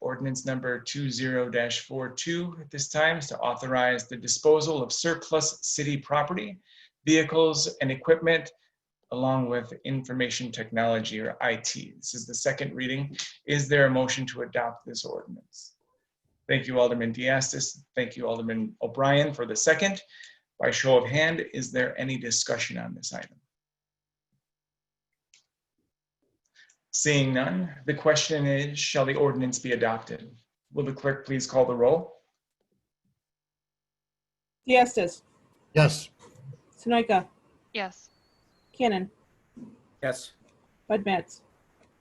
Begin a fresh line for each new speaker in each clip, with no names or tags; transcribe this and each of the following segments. ordinance number 20-42 at this time is to authorize the disposal of surplus city property, vehicles and equipment, along with information technology or IT. This is the second reading. Is there a motion to adopt this ordinance? Thank you, Alderman Diastis. Thank you, Alderman O'Brien, for the second. By show of hand, is there any discussion on this item? Seeing none, the question is, shall the ordinance be adopted? Will the clerk please call the roll?
Diastis,
Yes.
Sunoika,
Yes.
Cannon,
Yes.
Bud Matts,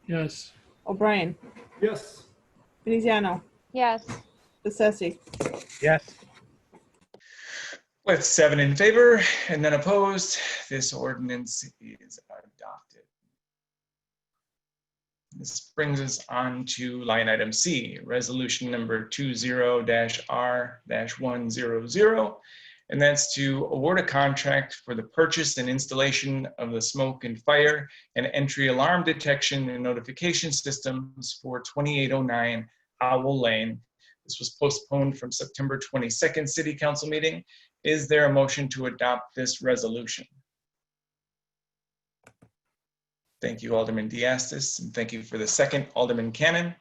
Yes.
O'Brien,
Yes.
Veneziano,
Yes.
Bessesi,
Yes.
With seven in favor and none opposed, this ordinance is adopted. This brings us on to line item C, resolution number 20-R-100. And that's to award a contract for the purchase and installation of the smoke and fire and entry alarm detection and notification systems for 2809 Owl Lane. This was postponed from September 22nd City Council meeting is there a motion to adopt this resolution? Thank you, Alderman Diastis, and thank you for the second, Alderman Cannon.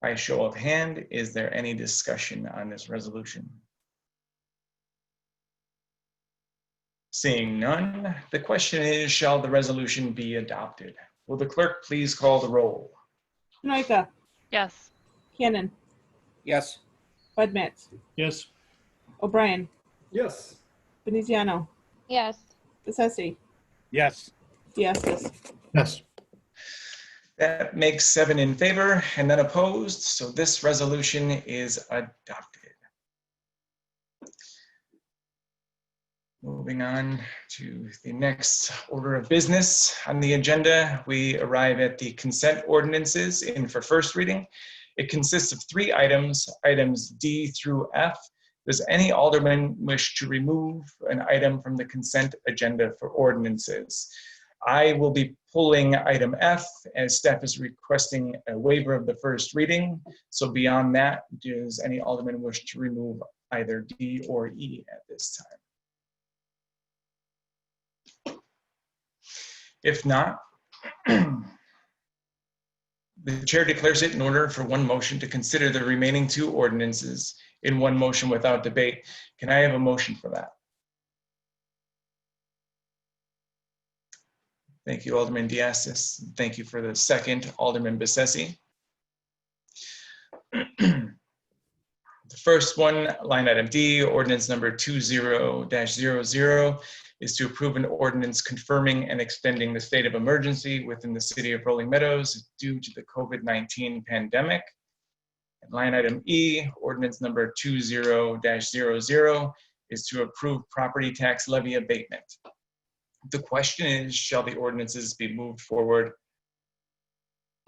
By a show of hand, is there any discussion on this resolution? Seeing none, the question is, shall the resolution be adopted? Will the clerk please call the roll?
Sunoika,
Yes.
Cannon,
Yes.
Bud Matts,
Yes.
O'Brien,
Yes.
Veneziano,
Yes.
Bessesi,
Yes.
Diastis,
Yes.
That makes seven in favor and none opposed, so this resolution is adopted. Moving on to the next order of business on the agenda, we arrive at the consent ordinances in for first reading. It consists of three items, items D through F. Does any alderman wish to remove an item from the consent agenda for ordinances? I will be pulling item F as staff is requesting a waiver of the first reading. So beyond that, does any alderman wish to remove either D or E at this time? If not, the chair declares it in order for one motion to consider the remaining two ordinances in one motion without debate. Can I have a motion for that? Thank you, Alderman Diastis. Thank you for the second, Alderman Bessetti. The first one, line item D, ordinance number 20-00 is to approve an ordinance confirming and extending the state of emergency within the city of Rolling Meadows due to the COVID-19 pandemic. And Line item E, ordinance number 20-00 is to approve property tax levy abatement. The question is, shall the ordinances be moved forward?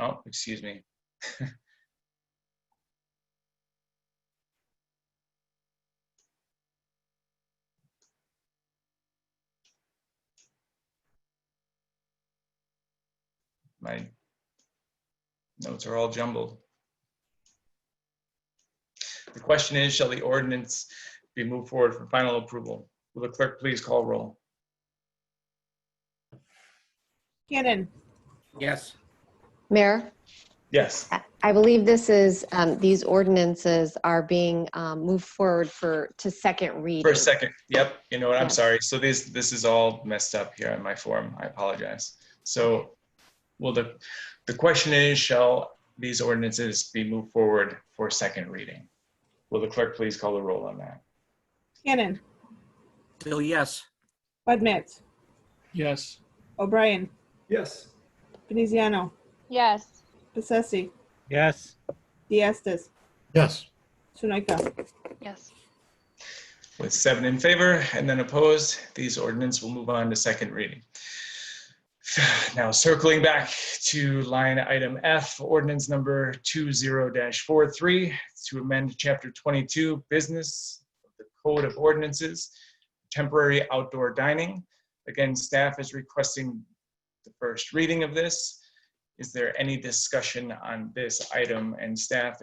Oh, excuse me. My notes are all jumbled. The question is, shall the ordinance be moved forward for final approval? Will the clerk please call roll?
Cannon,
Yes.
Mayor,
Yes.
I- I believe this is, um, these ordinances are being um, moved forward for, to second reading.
For a second, yep, you know what, I'm
Yes.
sorry. So this, this is all messed up here on my form, I apologize. So, well, the, the question is, shall these ordinances be moved forward for second reading? Will the clerk please call the roll on that?
Cannon,
Bill, yes.
Bud Matts,
Yes.
O'Brien,
Yes.
Veneziano,
Yes.
Bessesi,
Yes.
Diastis,
Yes.
Sunoika,
Yes.
With seven in favor and none opposed, these ordinance will move on to second reading. Now circling back to line item F, ordinance number 20-43, to amend chapter 22, business of the code of ordinances, temporary outdoor dining. Again, staff is requesting the first reading of this. Is there any discussion on this item? And staff,